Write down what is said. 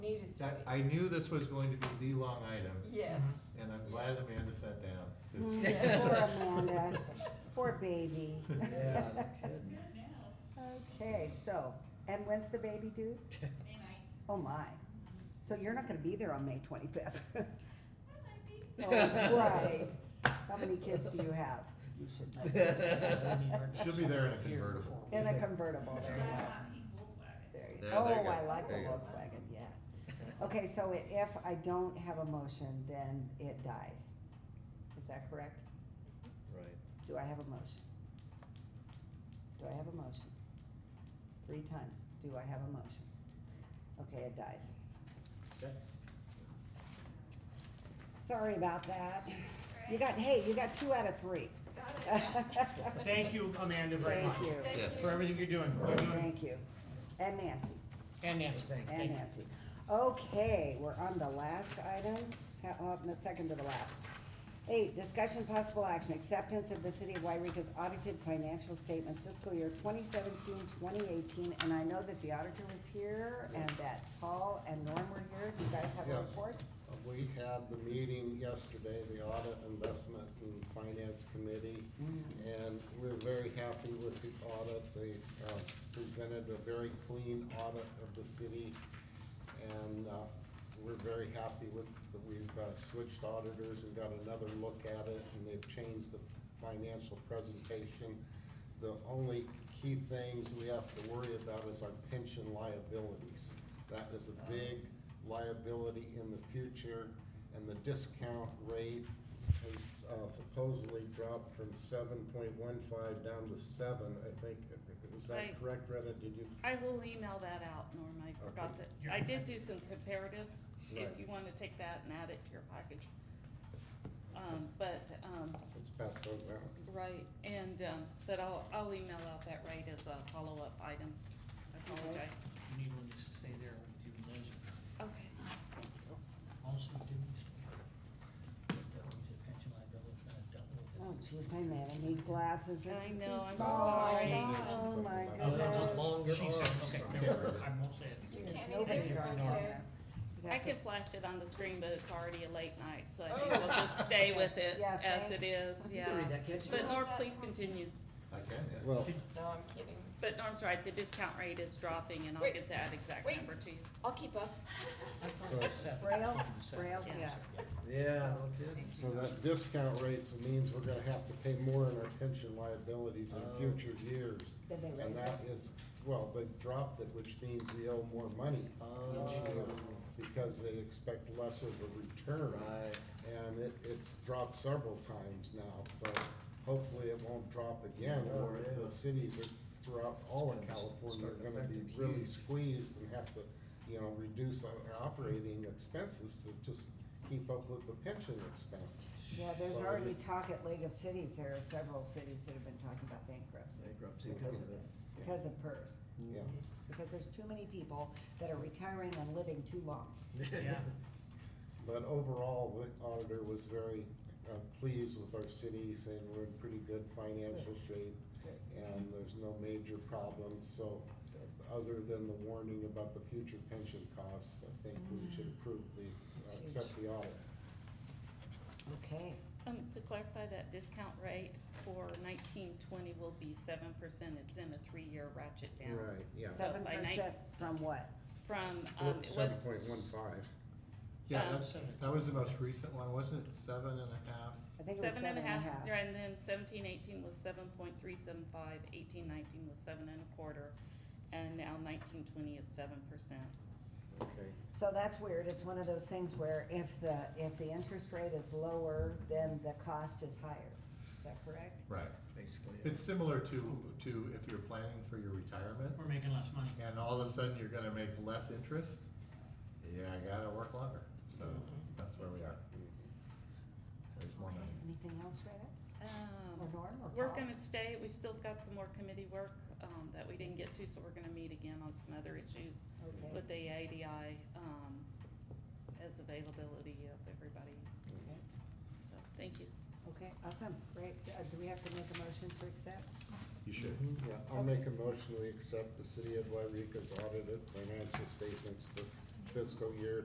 That, I knew this was going to be the long item, Yes. and I'm glad Amanda sat down. 'cause- Yeah. Mm, Poor Amanda, poor baby. Yeah, no kidding. Okay, so, and when's the baby due? Oh my, so you're not gonna be there on May twenty-fifth? Oh, Right, how many kids do you have? You should know. She'll be there in a convertible. In a convertible, there you go. There you There go. they go. Oh, I like the There you go. Volkswagen, yeah. Okay, so i- if I don't have a motion, then it dies. Is that correct? Right. Do I have a motion? Do I have a motion? Three times, do I have a motion? Okay, it dies. Okay. Sorry about that. You got, hey, you got two out of three. Thank you, Amanda, very much. Thank you, Yes. For everything you're doing. You're doing- thank you. And Nancy, And Nancy. Thank Thank and you. Nancy. Okay, we're on the last item, ha- uh, the second to the last. Eight, discussion possible action, acceptance of the city of Wyrica's audited financial statement fiscal year 2017-2018. And I know that the auditor was here and that Paul and Norm were here. Do you guys have Yeah. a report? Uh, We had the meeting yesterday, the Audit Investment and Finance Committee, and we're very happy with the audit. They uh, presented a very clean audit of the city, and uh, we're very happy with, that we've uh, switched auditors and got another look at it, and they've changed the financial presentation. The only key things we have to worry about is our pension liabilities. That is a big liability in the future, and the discount rate has uh, supposedly dropped from seven point one five down to seven, I think. Is Right. that correct, Rheta? Did you? I will email that out, Norm, I forgot to, I did do some comparatives, if Right. you wanna take that and add it to your package. Um, but, um, It's passed over. right, and, um, but I'll, I'll email out that rate as a follow-up item, I apologize. You need one just to stay there with you, Liz. Okay. Also, didn't you speak? That was your pension liability, kind of dealt with it. Oh, jeez, I made, I need glasses, this I is too know, I'm small. sorry. Oh, my Something Oh, they're just goodness. longer She said, arms. okay, Yeah. never mind. I won't say it. Yes, Can't Nobody's either. on Thank you. there. You I have to- could flash it on the screen, but it's already a late night, so I think we'll just stay with it Yeah, as thank- it is, You yeah. can read that, can't you? But Norm, please continue, I can, yeah. Well, No, I'm kidding. but Norm's right, the discount rate is dropping, and I'll Wait. get that exact Wait. number to you. I'll keep up. I thought it was seven. Braille, It was seven. braille, Yeah. yeah. Yeah, no kidding. so that discount rate means we're gonna have to pay more in our pension liabilities Oh. in future years. Did they And raise that it? is, well, they dropped it, which means we owe more money Ah. each year because they expect less of a return. Right. And it, it's dropped several times now, so hopefully it won't drop again, or Yeah. the cities are throughout all of It's gonna s- California start are gonna be affecting really huge. squeezed and have to, you know, reduce our our operating expenses to just keep up with the pension expense. Yeah, there's So, already talk at League of Cities, there are several cities that have been talking about bankruptcy Bankruptcy because of, because of PERS. Mm-hmm. Yeah. Because there's too many people that are retiring and living too long. Yeah. But overall, the auditor was very uh, pleased with our city, saying we're in pretty good financial shape and there's no major problems, so uh, other than the warning about the future pension costs, I think Mm-hmm. we should approve the, uh, That's accept the audit. Okay, Um, to clarify, that discount rate for nineteen twenty will be seven percent, it's in a three-year ratchet down. yeah. So seven by night- percent from what? From, um, it Seven was, point one five. Yeah, Um, that's, that was the most recent one, wasn't it? Seven and a half? I think it was seven and a half, and then seventeen, eighteen was seven point three seven five, eighteen, nineteen was seven and a quarter, and now nineteen, twenty is seven percent. Okay. So that's weird, it's one of those things where if the, if the interest rate is lower, then the cost is higher, is that correct? Right. Basically. yeah. It's similar to, to if you're planning for your retirement We're making less money. and all of a sudden you're gonna make less interest, yeah, I gotta work longer. So Mm-hmm. that's where we are. There's more money. Anything else, Rheta? Or Um, Norm or Uh-huh. we're Paul? gonna stay, we've still got some more committee work, um, that we didn't get to, so we're gonna meet again on some other issues Okay. with the ADI, um, as availability of everybody, Okay. so, thank you. Okay, awesome, great. Uh, Do we have to make a motion to accept? You should. Mm-hmm. Yeah, I'll make a motion, we accept the city of Wyrica's audited financial statements for fiscal year